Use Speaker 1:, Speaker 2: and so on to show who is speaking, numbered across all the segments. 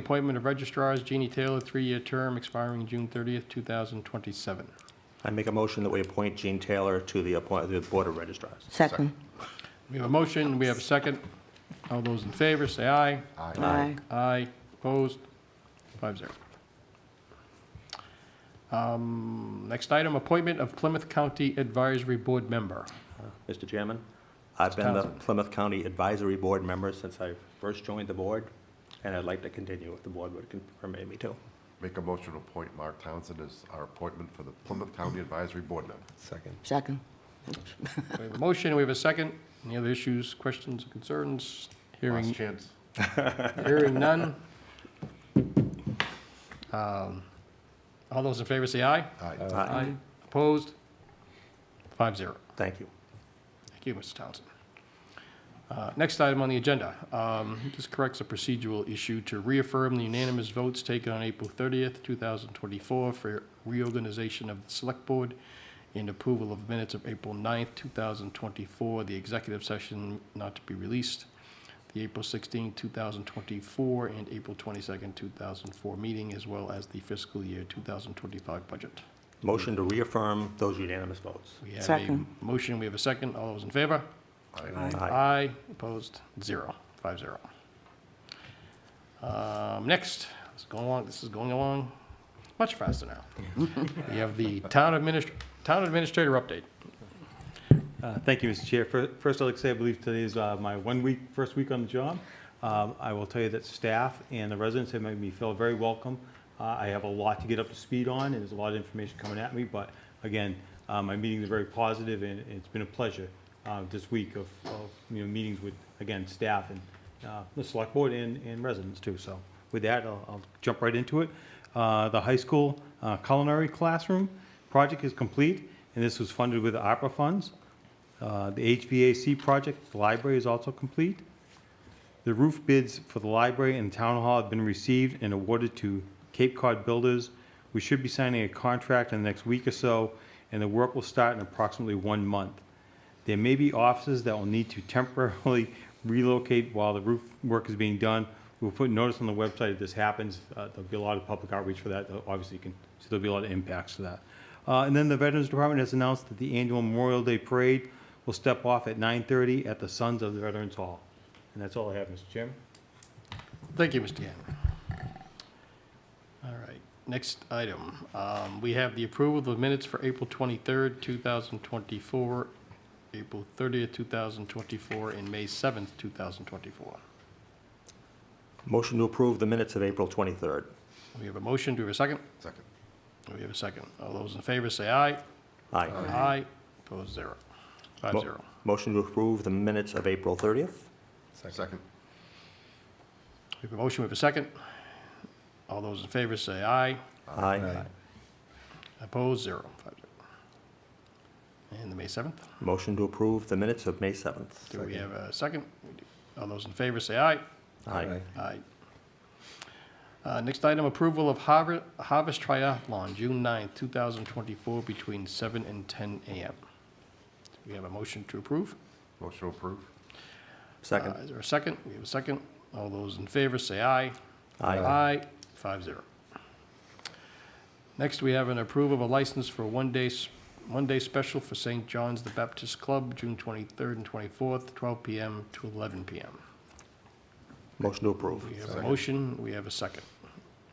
Speaker 1: Appointment of registrars, Jeannie Taylor, three-year term expiring June 30th, 2027.
Speaker 2: I make a motion that we appoint Gene Taylor to the appoint- the Board of Registrars.
Speaker 3: Second.
Speaker 1: We have a motion, we have a second. All those in favor, say aye.
Speaker 3: Aye.
Speaker 1: Aye, opposed, five zero. Um, Next item, appointment of Plymouth County Advisory Board member.
Speaker 2: Uh, Mr. Chairman, I've been the
Speaker 1: Townsend.
Speaker 2: Plymouth County Advisory Board member since I first joined the board, and I'd like to continue if the board would con- permit me to.
Speaker 4: Make a motion to appoint Mark Townsend as our appointment for the Plymouth County Advisory Board member.
Speaker 2: Second.
Speaker 3: Second.
Speaker 1: We have a motion, we have a second. Any other issues, questions, or concerns?
Speaker 4: Last
Speaker 1: Hearing,
Speaker 4: chance.
Speaker 1: hearing none. Um, All those in favor, say aye.
Speaker 2: Uh,
Speaker 4: Aye.
Speaker 1: Aye. Opposed? Five zero.
Speaker 2: Thank you.
Speaker 1: Thank you, Mr. Townsend. Uh, Next item on the agenda, um, this corrects a procedural issue to reaffirm the unanimous votes taken on April 30th, 2024 for reorganization of the Select Board and approval of minutes of April 9th, 2024, the executive session not to be released, the April 16th, 2024, and April 22nd, 2004 meeting, as well as the fiscal year 2025 budget.
Speaker 2: Motion to reaffirm those unanimous votes.
Speaker 1: We have a
Speaker 3: Second.
Speaker 1: motion, we have a second. All those in favor?
Speaker 4: Aye.
Speaker 1: Aye, opposed, zero, five zero. Um, Next, this is going along, this is going along much faster now. We have the town administr, town administrator update.
Speaker 5: Uh, Thank you, Mr. Chair. Fir- First, I'd like to say I believe today is uh, my one week, first week on the job. Um, I will tell you that staff and the residents have made me feel very welcome. Uh, I have a lot to get up to speed on, and there's a lot of information coming at me, but again, uh, my meetings are very positive, and it's been a pleasure uh, this week of, of, you know, meetings with, again, staff and uh, the select board and, and residents too. So with that, I'll I'll jump right into it. Uh, The high school uh, culinary classroom project is complete, and this was funded with ARPA funds. Uh, The HVAC project, at the library is also complete. The roof bids for the library and town hall have been received and awarded to Cape Cod Builders. We should be signing a contract in the next week or so, and the work will start in approximately one month. There may be offices that will need to temporarily relocate while the roof work is being done. We'll put notice on the website if this happens. Uh, There'll be a lot of public outreach for that. Though, Obviously, you can, so there'll be a lot of impacts to that. Uh, And then the Veterans Department has announced that the annual Memorial Day Parade will step off at 9:30 at the Sons of the Veterans Hall. And that's all I have, Mr. Chairman.
Speaker 1: Thank you, Mr. Gannon. All right, next item. Um, We have the approval of the minutes for April 23rd, 2024, April 30th, 2024, and May 7th, 2024.
Speaker 2: Motion to approve the minutes of April 23rd.
Speaker 1: We have a motion, do we have a second?
Speaker 4: Second.
Speaker 1: We have a second. All those in favor say aye.
Speaker 2: Aye.
Speaker 1: Aye. Opposed, zero. Five
Speaker 2: Mo-
Speaker 1: zero.
Speaker 2: Motion to approve the minutes of April 30th.
Speaker 4: Second.
Speaker 1: We have a motion, we have a second. All those in favor say aye.
Speaker 2: Aye.
Speaker 1: Opposed, zero. Five zero. And the May 7th,
Speaker 2: Motion to approve the minutes of May 7th.
Speaker 1: do we have a second? We do. All those in favor say aye.
Speaker 2: Aye.
Speaker 1: Aye. Uh, Next item, approval of Harvest Harvest Triathlon, June 9th, 2024, between seven and ten a.m. Do we have a motion to approve?
Speaker 4: Motion approved.
Speaker 2: Second.
Speaker 1: Uh, Is there a second? We have a second. All those in favor say aye.
Speaker 2: Aye.
Speaker 1: Aye, five zero. Next, we have an approval of a license for one day, s- one day special for St. John's the Baptist Club, June twenty-third and twenty-fourth, twelve PM to eleven PM.
Speaker 2: Motion to approve.
Speaker 1: We have a motion, we have a second.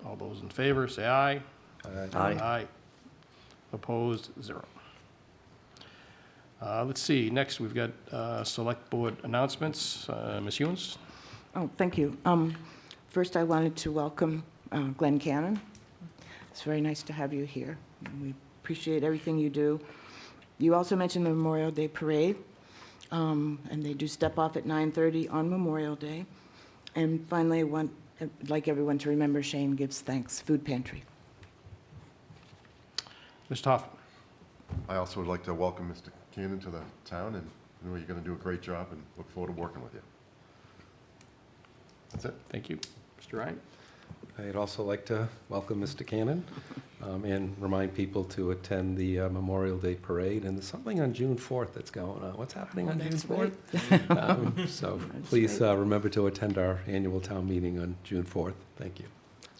Speaker 1: All those in favor, say aye.
Speaker 2: Aye.
Speaker 1: Opposed, zero. Uh, let's see, next, we've got, uh, select board announcements. Uh, Ms. Hewens?
Speaker 3: Oh, thank you. Um, First, I wanted to welcome uh, Glenn Cannon. It's very nice to have you here. and We appreciate everything you do. You also mentioned the Memorial Day Parade, um, and they do step off at 9:30 on Memorial Day. And finally, I want, I'd like everyone to remember Shane Gives Thanks Food Pantry.
Speaker 1: Mr. Hoffman?
Speaker 4: I also would like to welcome Mr. Cannon to the town, and I know you're going to do a great job, and look forward to working with you. That's it.
Speaker 1: Thank you. Mr. Ryan?
Speaker 6: I'd also like to welcome Mr. Cannon um, and remind people to attend the uh, Memorial Day Parade. And there's something on June 4th that's going on. What's happening on June 4th? Um, So please uh, remember to attend our annual town meeting on June 4th. Thank you.